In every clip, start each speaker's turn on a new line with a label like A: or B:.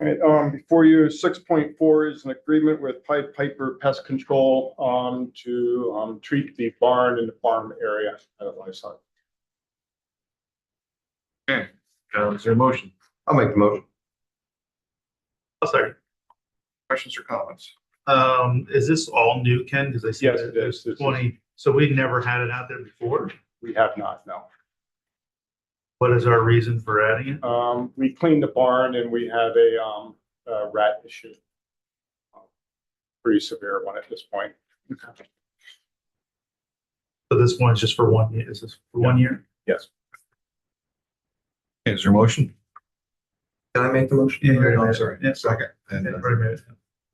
A: All right, um, before you, six point four is an agreement with Pied Piper Pest Control, um, to, um, treat the barn and the farm area at livestock.
B: Uh, is there a motion?
C: I'll make the motion.
D: I'll second.
B: Questions or comments?
D: Oh, Um, is this all new, Ken? Because I see
A: Yes,
D: that
A: it is. This is-
D: twenty, so we never had it out there before.
A: We have not, no.
D: What is our reason for adding it?
A: Um, we cleaned the barn and we have a, um, a rat issue. Pretty severe one at this point.
D: So this one's just for one year, is this for one year?
A: Yes.
B: Okay, Is there a motion?
C: Can I make the motion?
D: Yeah, you're right.
C: I'm sorry.
D: Yeah.
C: Second. And
D: Yeah,
C: uh,
D: right, right.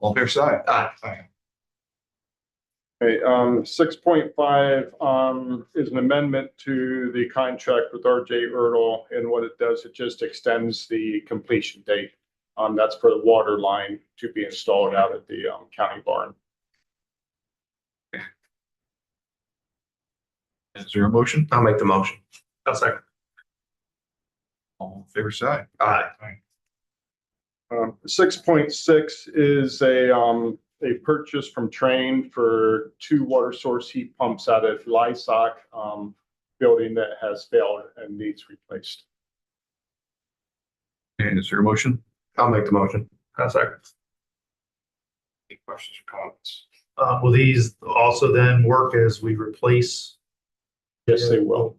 B: All fair side? Aye.
A: Okay, um, six point five, um, is an amendment to the contract with RJ Erdel. And what it does, it just extends the completion date. Um, that's for the water line to be installed out at the, um, county barn.
B: Is there a motion?
C: I'll make the motion.
D: I'll second.
B: All fair side?
D: Aye.
A: Um, six point six is a, um, a purchase from Train for two water source heat pumps out of Lysoc, um, building that has failed and needs replaced.
B: And is there a motion?
C: I'll make the motion.
D: I'll second.
B: Any questions or comments?
D: Uh, will these also then work as we replace?
A: Yes, they will.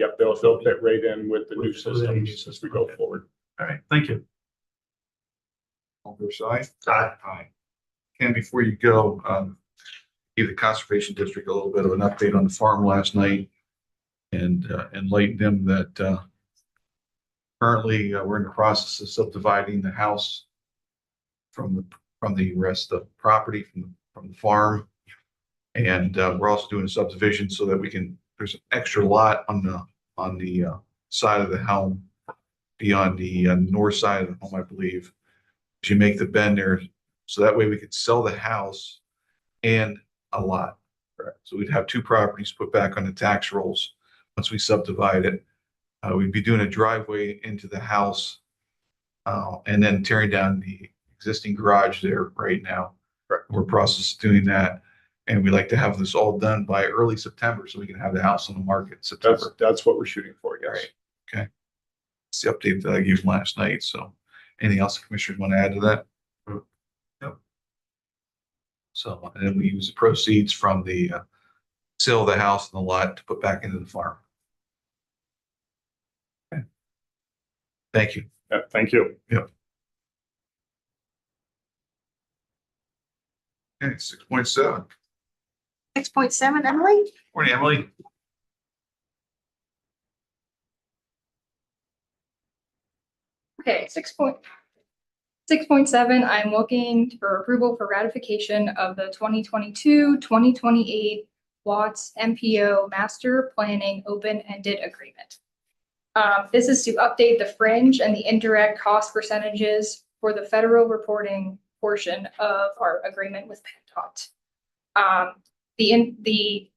A: Yep, they'll, they'll fit right in with the new systems as we go forward.
D: All right, thank you.
B: All fair side?
D: Aye.
B: Aye. And before you go, um, give the Conservation District a little bit of an update on the farm last night and uh, enlighten them that uh, currently uh, we're in the process of subdividing the house from the, from the rest of the property, from, the from the farm. And uh, we're also doing subdivision so that we can, there's an extra lot on the, on the uh, side of the helm beyond the uh, north side of the home, I believe. If you make the bend there, so that way we could sell the house and a lot. So we'd have two properties put back on the tax rolls once we subdivide it. Uh, we'd be doing a driveway into the house. uh, and then tearing down the existing garage there right now. We're process doing that. And we'd like to have this all done by early September so we can have the house on the market in September.
A: That's, that's what we're shooting for, yes.
B: Right. It's the update that I gave last night, so anything else the commissioners want to add to that? Nope. So, and then we use the proceeds from the uh, sale of the house and the lot to put back into the farm. Okay. Thank you.
A: Yeah, thank you.
B: Okay, six point seven.
E: Six point seven, Emily?
B: Morning, Emily.
F: Okay, six point, six point seven, I'm looking for approval for ratification of the 2022-2028 Watts MPO Master Planning Open-Ended Agreement. Um, this is to update the fringe and the indirect cost percentages for the federal reporting portion of our agreement with PennDOT. Um, the, in- the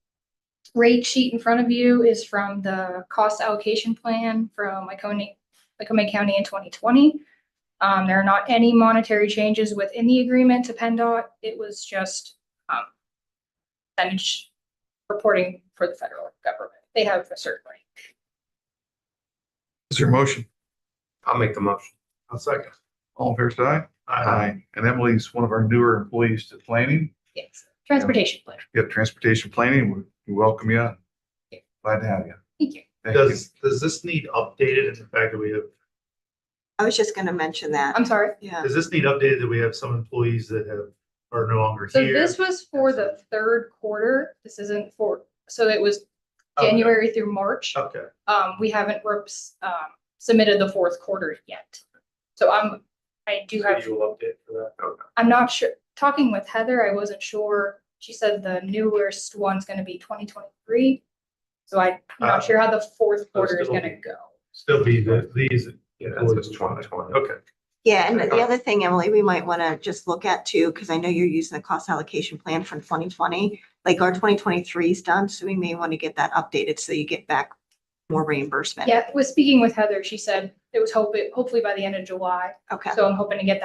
F: rate sheet in front of you is from the cost allocation plan from Iconic, Lycoming County in twenty twenty. Um, there are not any monetary changes within the agreement to PennDOT. It was just, um, percentage reporting for the federal government. They have a certain rate.
B: Is there a motion?
C: I'll make the motion.
D: I'll second.
B: All fair side? And Emily's one of our newer employees to planning.
F: Yes, transportation plan.
B: You have transportation planning. We- We welcome you.
F: Yeah.
B: Glad to have you.
F: Thank you.
B: Thank you.
D: Does, does this need updated in the fact that we have,
E: I was just gonna mention that.
F: I'm sorry.
E: Yeah,
D: does this need updated that we have some employees that have, are no longer
F: So
D: here?
F: this was for the third quarter. This isn't for, so it was
D: Okay, Oh.
F: January through March.
D: Okay,
F: Um, we haven't reps, um, submitted the fourth quarter yet. So I'm, I do
D: so
F: have
D: you will update for that, okay.
F: I'm not sure, talking with Heather, I wasn't sure, she said the newest one's gonna be twenty twenty-three. So I'm
D: Ah.
F: not sure how the fourth
D: So
F: quarter is
D: it'll
F: gonna
D: be-
F: go.
D: Still be the, these.
C: That's just twenty twenty.
D: Okay,
E: yeah, and the other thing, Emily, we might wanna just look at too, because I know you're using the cost allocation plan from twenty twenty. Like our twenty twenty-three is done, so we may want to get that updated so you get back more reimbursement.
F: Yeah, was speaking with Heather, she said it was hope, hopefully by the end of July.
E: Okay.
F: So I'm hoping to get that